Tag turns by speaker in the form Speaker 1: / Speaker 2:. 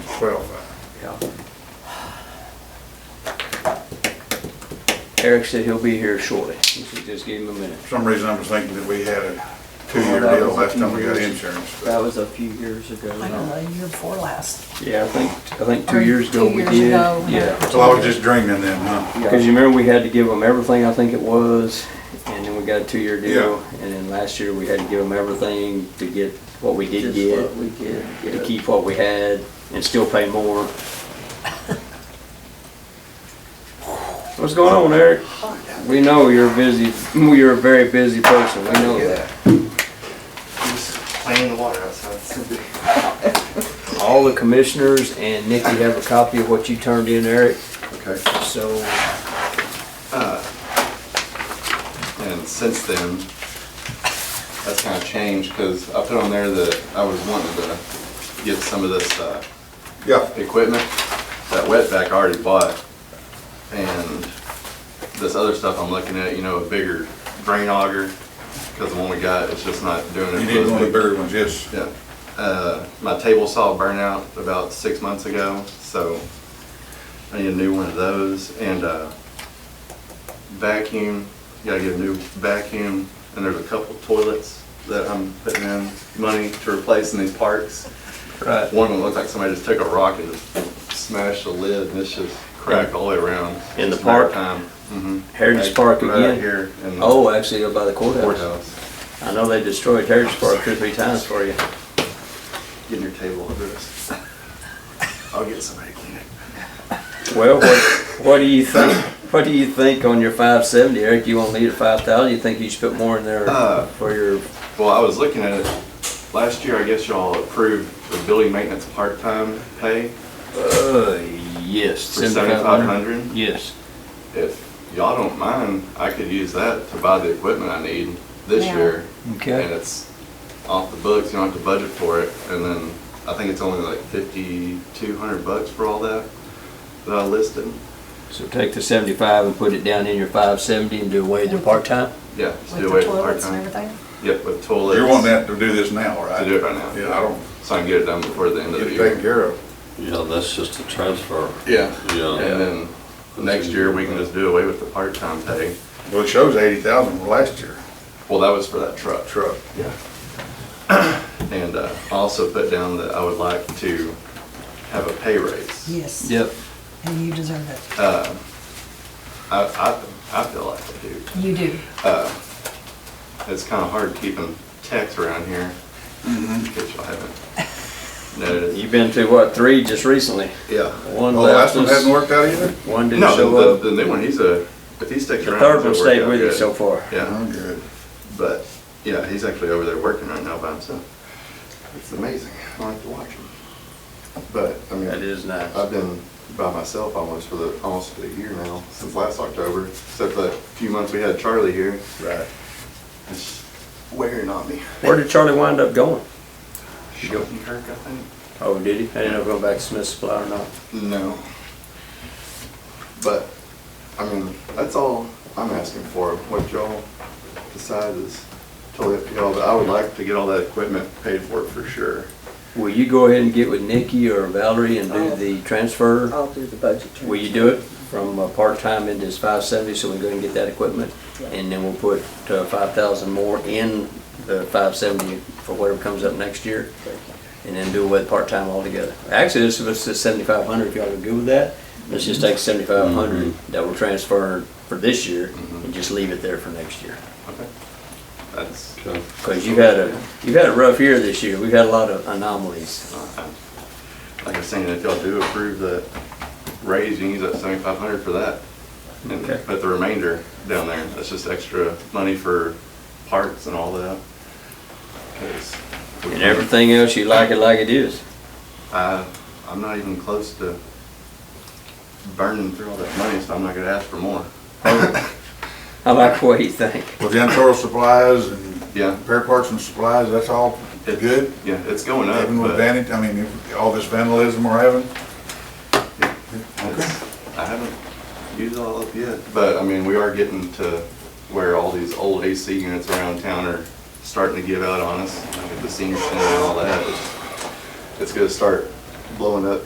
Speaker 1: twelve five.
Speaker 2: Yeah. Eric said he'll be here shortly. He said just give him a minute.
Speaker 1: For some reason, I was thinking that we had a two-year
Speaker 2: Well, that
Speaker 1: deal
Speaker 2: was a
Speaker 1: last time
Speaker 2: few
Speaker 1: we got
Speaker 2: years.
Speaker 1: insurance. but-
Speaker 2: That was a few years ago.
Speaker 3: I don't know, year before last.
Speaker 2: Yeah, I think, I think two
Speaker 3: Or
Speaker 2: years ago
Speaker 3: two
Speaker 2: we
Speaker 3: years
Speaker 2: did.
Speaker 3: ago, yeah.
Speaker 2: Yeah.
Speaker 1: So I was just dreaming then, huh?
Speaker 2: Because you remember we had to give them everything, I think it was, and then we got a two-year deal. And then last year, we had to give them everything to get what we did
Speaker 4: Just
Speaker 2: get,
Speaker 4: what we did
Speaker 2: to
Speaker 4: get.
Speaker 2: keep what we had, and still pay more. What's going on, Eric? We know you're busy, you're a very busy person, we know that.
Speaker 5: Just playing in the water outside. It's so big.
Speaker 2: All the commissioners and Nikki have a copy of what you turned in, Eric,
Speaker 5: Okay.
Speaker 2: so
Speaker 5: And since then, that's kind of changed because I put on there that I was wanting to get some of this uh,
Speaker 1: Yeah,
Speaker 5: equipment that wetback I already bought. And this other stuff I'm looking at, you know, a bigger drain auger because the one we got is just not doing it.
Speaker 1: you
Speaker 5: for
Speaker 1: need
Speaker 5: those
Speaker 1: one of the
Speaker 5: big-
Speaker 1: bigger ones, yes.
Speaker 5: Yeah. Uh, my table saw burn out about six months ago, so I need a new one of those. And uh, vacuum, gotta get a new vacuum. And there's a couple toilets that I'm putting in money to replace in these parks.
Speaker 2: Right.
Speaker 5: One of them looks like somebody just took a rock and just smashed the lid, and it's just cracked all the way around.
Speaker 2: In the
Speaker 5: It's a matter
Speaker 2: park?
Speaker 5: of Time. Mhm.
Speaker 2: Heritage
Speaker 5: Like,
Speaker 2: Park
Speaker 5: right out
Speaker 2: again?
Speaker 5: here in the
Speaker 2: Oh, actually, by the courthouse.
Speaker 5: courthouse.
Speaker 2: I know they destroyed Heritage Park two, or three times for you.
Speaker 5: Get your table over this. I'll get somebody to clean it.
Speaker 2: Well, what, what do you think, what do you think on your five seventy, Eric? You won't need a five thousand, you think you should put more in there
Speaker 5: Uh.
Speaker 2: for your,
Speaker 5: Well, I was looking at it, last year, I guess y'all approved the building maintenance part-time pay
Speaker 2: uh, yes.
Speaker 5: for seventy-five hundred.
Speaker 2: Yes.
Speaker 5: If y'all don't mind, I could use that to buy the equipment I need this
Speaker 3: Yeah.
Speaker 5: year. And
Speaker 2: Okay,
Speaker 5: it's off the books, you don't have to budget for it, and then I think it's only like fifty-two hundred bucks for all that that I listed.
Speaker 2: so take the seventy-five and put it down in your five seventy and do away with the part-time?
Speaker 5: Yeah, just
Speaker 3: With
Speaker 5: do
Speaker 3: the
Speaker 5: away with
Speaker 3: toilets and
Speaker 5: part-time.
Speaker 3: everything?
Speaker 5: Yep, with toilets.
Speaker 1: You're wanting that to do this now,
Speaker 5: To
Speaker 1: right?
Speaker 5: do it right now.
Speaker 1: Yeah, I don't,
Speaker 5: So I can get it done before the end of
Speaker 1: get
Speaker 5: the
Speaker 1: it
Speaker 5: year.
Speaker 1: taken care of.
Speaker 4: Yeah, that's just a transfer.
Speaker 5: Yeah.
Speaker 4: Yeah.
Speaker 5: And then next year, we can just do away with the part-time pay.
Speaker 1: Well, it shows eighty thousand from last year,
Speaker 5: Well, that was for that truck.
Speaker 1: truck.
Speaker 5: Yeah. And uh, I also put down that I would like to have a pay raise.
Speaker 3: Yes.
Speaker 2: Yep.
Speaker 3: And you deserve it.
Speaker 5: Uh, I, I, I feel like I do.
Speaker 3: You do.
Speaker 5: Uh, It's kind of hard keeping techs around here,
Speaker 2: Mm-hmm.
Speaker 5: which I haven't noticed.
Speaker 2: You've been to what, three just recently?
Speaker 5: Yeah.
Speaker 2: One
Speaker 1: Oh, last
Speaker 2: left
Speaker 1: one hasn't
Speaker 2: us,
Speaker 1: worked out either?
Speaker 2: one didn't
Speaker 5: No,
Speaker 2: show
Speaker 5: the,
Speaker 2: up,
Speaker 5: the new one, he's a, if he sticks
Speaker 2: the
Speaker 5: around.
Speaker 2: third
Speaker 5: it'll
Speaker 2: one
Speaker 5: work
Speaker 2: stayed
Speaker 5: out
Speaker 2: with you
Speaker 5: good.
Speaker 2: so far.
Speaker 5: Yeah.
Speaker 1: Oh, good.
Speaker 5: But yeah, he's actually over there working right now by himself. It's amazing. I like to watch him. But I mean,
Speaker 2: That is nice.
Speaker 5: I've been by myself almost for the almost for the year now since last October, except for that few months we had Charlie here.
Speaker 1: Right.
Speaker 5: It's wearing on me.
Speaker 2: Where did Charlie wind up going?
Speaker 5: Kirk, I think.
Speaker 2: Oh, did he? I didn't know if he went back to Smith Supply or not.
Speaker 5: No. But I mean, that's all I'm asking for. What y'all decide is totally up to y'all. But I would like to get all that equipment paid for for sure.
Speaker 2: Will you go ahead and get with Nikki or Valerie and do the transfer?
Speaker 4: I'll do the budget transfer.
Speaker 2: Will you do it from uh, part-time into this five seventy, so we can go and get that equipment? And then we'll put uh, five thousand more in the five seventy for whatever comes up next year? And then do it with part-time altogether. Actually, this was the seventy-five hundred, if y'all are good with that. Let's just take seventy-five hundred that we're transferring for this year and just leave it there for next year.
Speaker 5: That's
Speaker 4: Okay.
Speaker 2: Because you've had a, you've had a rough year this year. We've had a lot of anomalies.
Speaker 5: uh, Like I was saying, if y'all do approve the raise, you can use that seventy-five hundred for that. And
Speaker 2: Okay.
Speaker 5: put the remainder down there. That's just extra money for parts and all that. 'Cause we
Speaker 2: And
Speaker 5: can't-
Speaker 2: everything else, you like it like it is.
Speaker 5: I, I'm not even close to burning through all that money, so I'm not gonna ask for more.
Speaker 2: I like the way you think.
Speaker 1: Well, janitorial supplies and
Speaker 5: Yeah.
Speaker 1: repair parts and supplies, that's all
Speaker 5: It-
Speaker 1: good?
Speaker 5: Yeah, it's going up,
Speaker 1: Even with
Speaker 5: but
Speaker 1: vanity, I mean, if- all this vandalism we're having?
Speaker 5: it's- I haven't used all of it yet. But, I mean, we are getting to where all these old AC units around town are starting to give out on us, like at the senior center and all that. It's- It's gonna start blowing up